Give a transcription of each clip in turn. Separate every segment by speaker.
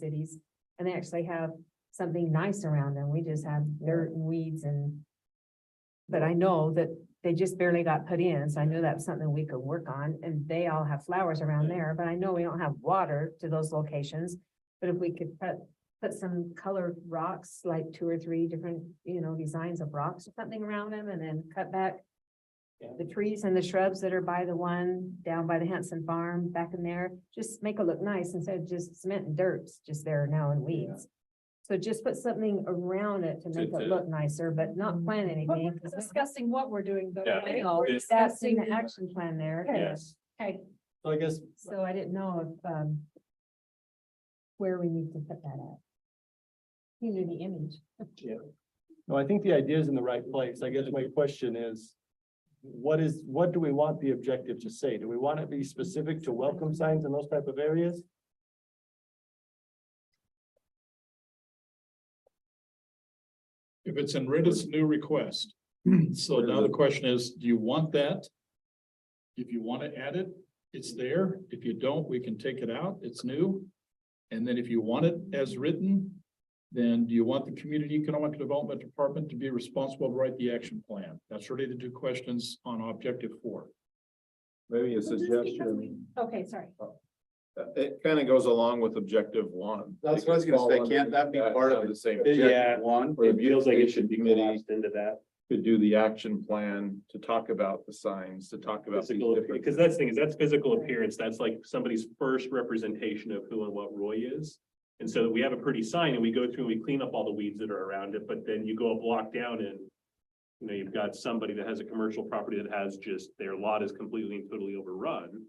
Speaker 1: cities. And they actually have something nice around them. We just have dirt and weeds and. But I know that they just barely got put in, so I know that's something we could work on and they all have flowers around there, but I know we don't have water to those locations. But if we could put, put some colored rocks, like two or three different, you know, designs of rocks or something around them and then cut back.
Speaker 2: Yeah.
Speaker 1: The trees and the shrubs that are by the one down by the Hanson Farm back in there, just make it look nice instead of just cement and dirt's just there now and weeds. So just put something around it to make it
Speaker 2: to-
Speaker 1: look nicer, but
Speaker 3: Mm-hmm.
Speaker 1: not plant
Speaker 3: But
Speaker 1: anything.
Speaker 3: we're
Speaker 1: 'cause we-
Speaker 3: discussing what we're doing though.
Speaker 2: Yeah.
Speaker 3: right?
Speaker 1: No,
Speaker 3: We're
Speaker 2: it's-
Speaker 1: that's in
Speaker 3: discussing
Speaker 1: the action plan there.
Speaker 3: Okay.
Speaker 2: Yes,
Speaker 3: Okay,
Speaker 2: so I guess,
Speaker 1: So I didn't know if, um, where we need to put that at. You knew the image.
Speaker 2: no, I think the idea is in the right place. I guess my question is. What is, what do we want the objective to say? Do we want it to be specific to welcome signs in those type of areas?
Speaker 4: If it's in red, it's a new request. So now the question is, do you want that? If you want to add it, it's there. If you don't, we can take it out. It's new. And then if you want it as written, then do you want the Community Economic Development Department to be responsible to write the action plan? That's really the two questions on objective four.
Speaker 5: Maybe a
Speaker 3: Well, just because we-
Speaker 5: suggestion,
Speaker 3: okay, sorry.
Speaker 5: uh, it kind of goes along with objective one.
Speaker 6: That's what I was gonna say, can't that be part of the same?
Speaker 5: Yeah.
Speaker 6: One.
Speaker 5: Or the beautification committee
Speaker 6: collapsed into that.
Speaker 5: Could do the action plan to talk about the signs, to talk about. these
Speaker 6: Physical,
Speaker 5: different-
Speaker 6: because that's the thing, is that's physical appearance, that's like somebody's first representation of who and what Roy is. And so we have a pretty sign and we go through and we clean up all the weeds that are around it, but then you go a block down and. You know, you've got somebody that has a commercial property that has just, their lot is completely and totally overrun.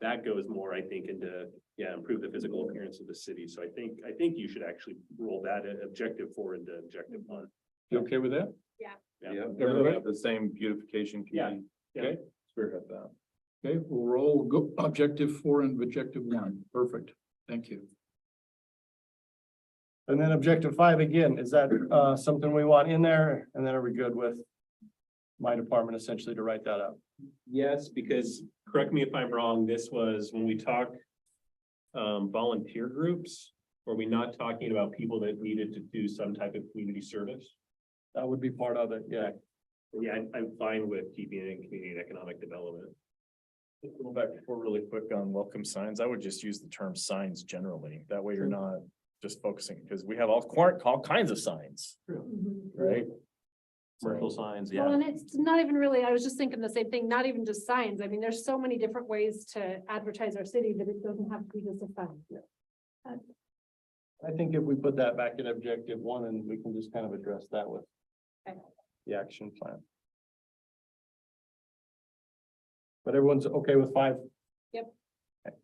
Speaker 6: That goes more, I think, into, yeah, improve the physical appearance of the city, so I think, I think you should actually roll that uh, objective four into objective one.
Speaker 2: You okay with that?
Speaker 5: Yeah, the same beautification committee.
Speaker 6: Yeah.
Speaker 5: Okay, Spearhead that.
Speaker 4: Okay, we'll roll go- objective four and objective one. Perfect. Thank you.
Speaker 2: And then objective five again, is that uh something we want in there? And then are we good with? My department essentially to write that up?
Speaker 6: Yes, because, correct me if I'm wrong, this was when we talk um, volunteer groups, were we not talking about people that needed to do some type of community service?
Speaker 2: That would be part of it, yeah.
Speaker 6: Yeah, I'm- I'm fine with keeping it in community and economic development.
Speaker 7: Go back before really quick on welcome signs. I would just use the term signs generally. That way you're not just focusing, because we have all quar- all kinds of signs, right?
Speaker 6: Commercial signs,
Speaker 3: Mm-hmm. Well,
Speaker 6: yeah.
Speaker 3: and it's not even really, I was just thinking the same thing, not even just signs. I mean, there's so many different ways to advertise our city that it doesn't have to be just a sign.
Speaker 2: I think if we put that back in objective one, and we can just kind of address that with.
Speaker 3: Okay.
Speaker 2: The action plan. But everyone's okay with five?
Speaker 3: Yep.
Speaker 2: Okay.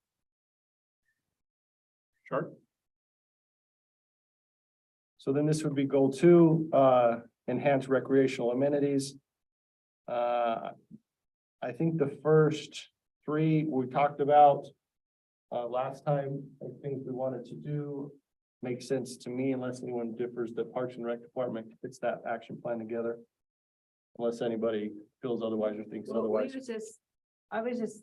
Speaker 2: Sure. So then this would be goal two, uh, enhance recreational amenities. Uh, I think the first three we talked about. Uh, last time, I think we wanted to do, makes sense to me unless anyone differs, the Parks and Rec Department gets that action plan together. Unless anybody feels otherwise or thinks
Speaker 1: Well, we
Speaker 2: otherwise.
Speaker 1: was just, I was just.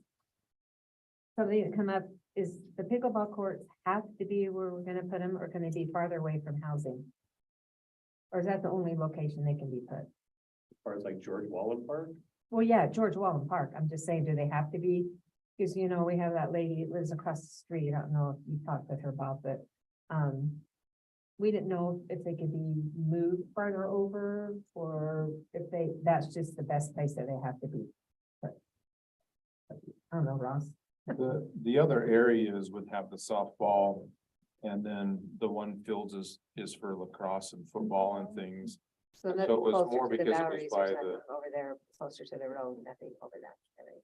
Speaker 1: Something that come up is the pickleball courts have to be where we're gonna put them, or can they be farther away from housing? Or is that the only location they can be put?
Speaker 6: Or it's like George Wallen Park.
Speaker 1: Well, yeah, George Wallen Park, I'm just saying, do they have to be? Cause you know, we have that lady that lives across the street, I don't know if you talked with her about, but, um. We didn't know if they could be moved farther over, or if they, that's just the best place that they have to be. But I don't know, Ross,
Speaker 5: The, the other areas would have the softball. And then the one fields is, is for lacrosse and football and things.
Speaker 1: so
Speaker 5: that's
Speaker 1: that's
Speaker 5: So it was closer
Speaker 1: closer
Speaker 5: more to
Speaker 1: to
Speaker 5: the
Speaker 1: the
Speaker 5: because it was
Speaker 1: Bowery's or
Speaker 5: Bowery's or by something, the-
Speaker 1: over there, closer to the road, nothing over that.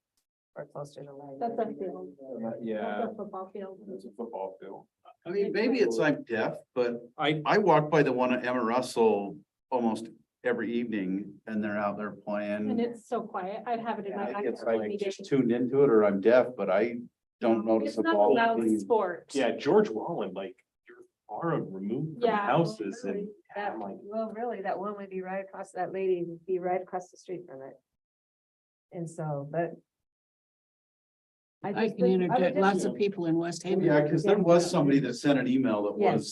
Speaker 1: Or closer to.
Speaker 3: That's a field,
Speaker 5: Uh, Yeah,
Speaker 3: that's a football field.
Speaker 5: it's a football field.
Speaker 8: I mean, maybe it's I'm deaf, but I, I walk by the one at Emma Russell almost every evening and they're out there
Speaker 3: And
Speaker 8: playing.
Speaker 3: it's so quiet. I'd have it in my.
Speaker 8: I think
Speaker 3: backyard
Speaker 8: It's
Speaker 3: when
Speaker 8: like
Speaker 3: we do.
Speaker 8: just tuned into it or I'm deaf, but I don't notice
Speaker 3: It's
Speaker 8: a
Speaker 3: not
Speaker 8: ball.
Speaker 3: loud
Speaker 8: being-
Speaker 3: Sport.
Speaker 6: Yeah, George Wallen, like, you're far removed from
Speaker 3: Yeah.
Speaker 6: houses and I'm like,
Speaker 1: Well, really, that one would be right across, that lady would be right across the street from it. And so, but.
Speaker 5: I
Speaker 3: I
Speaker 5: just
Speaker 3: can
Speaker 5: think- I would
Speaker 3: interject.
Speaker 5: just-
Speaker 3: Lots of people in West Haven.
Speaker 1: Yeah, because there was somebody that sent an email that
Speaker 5: Yes.
Speaker 1: was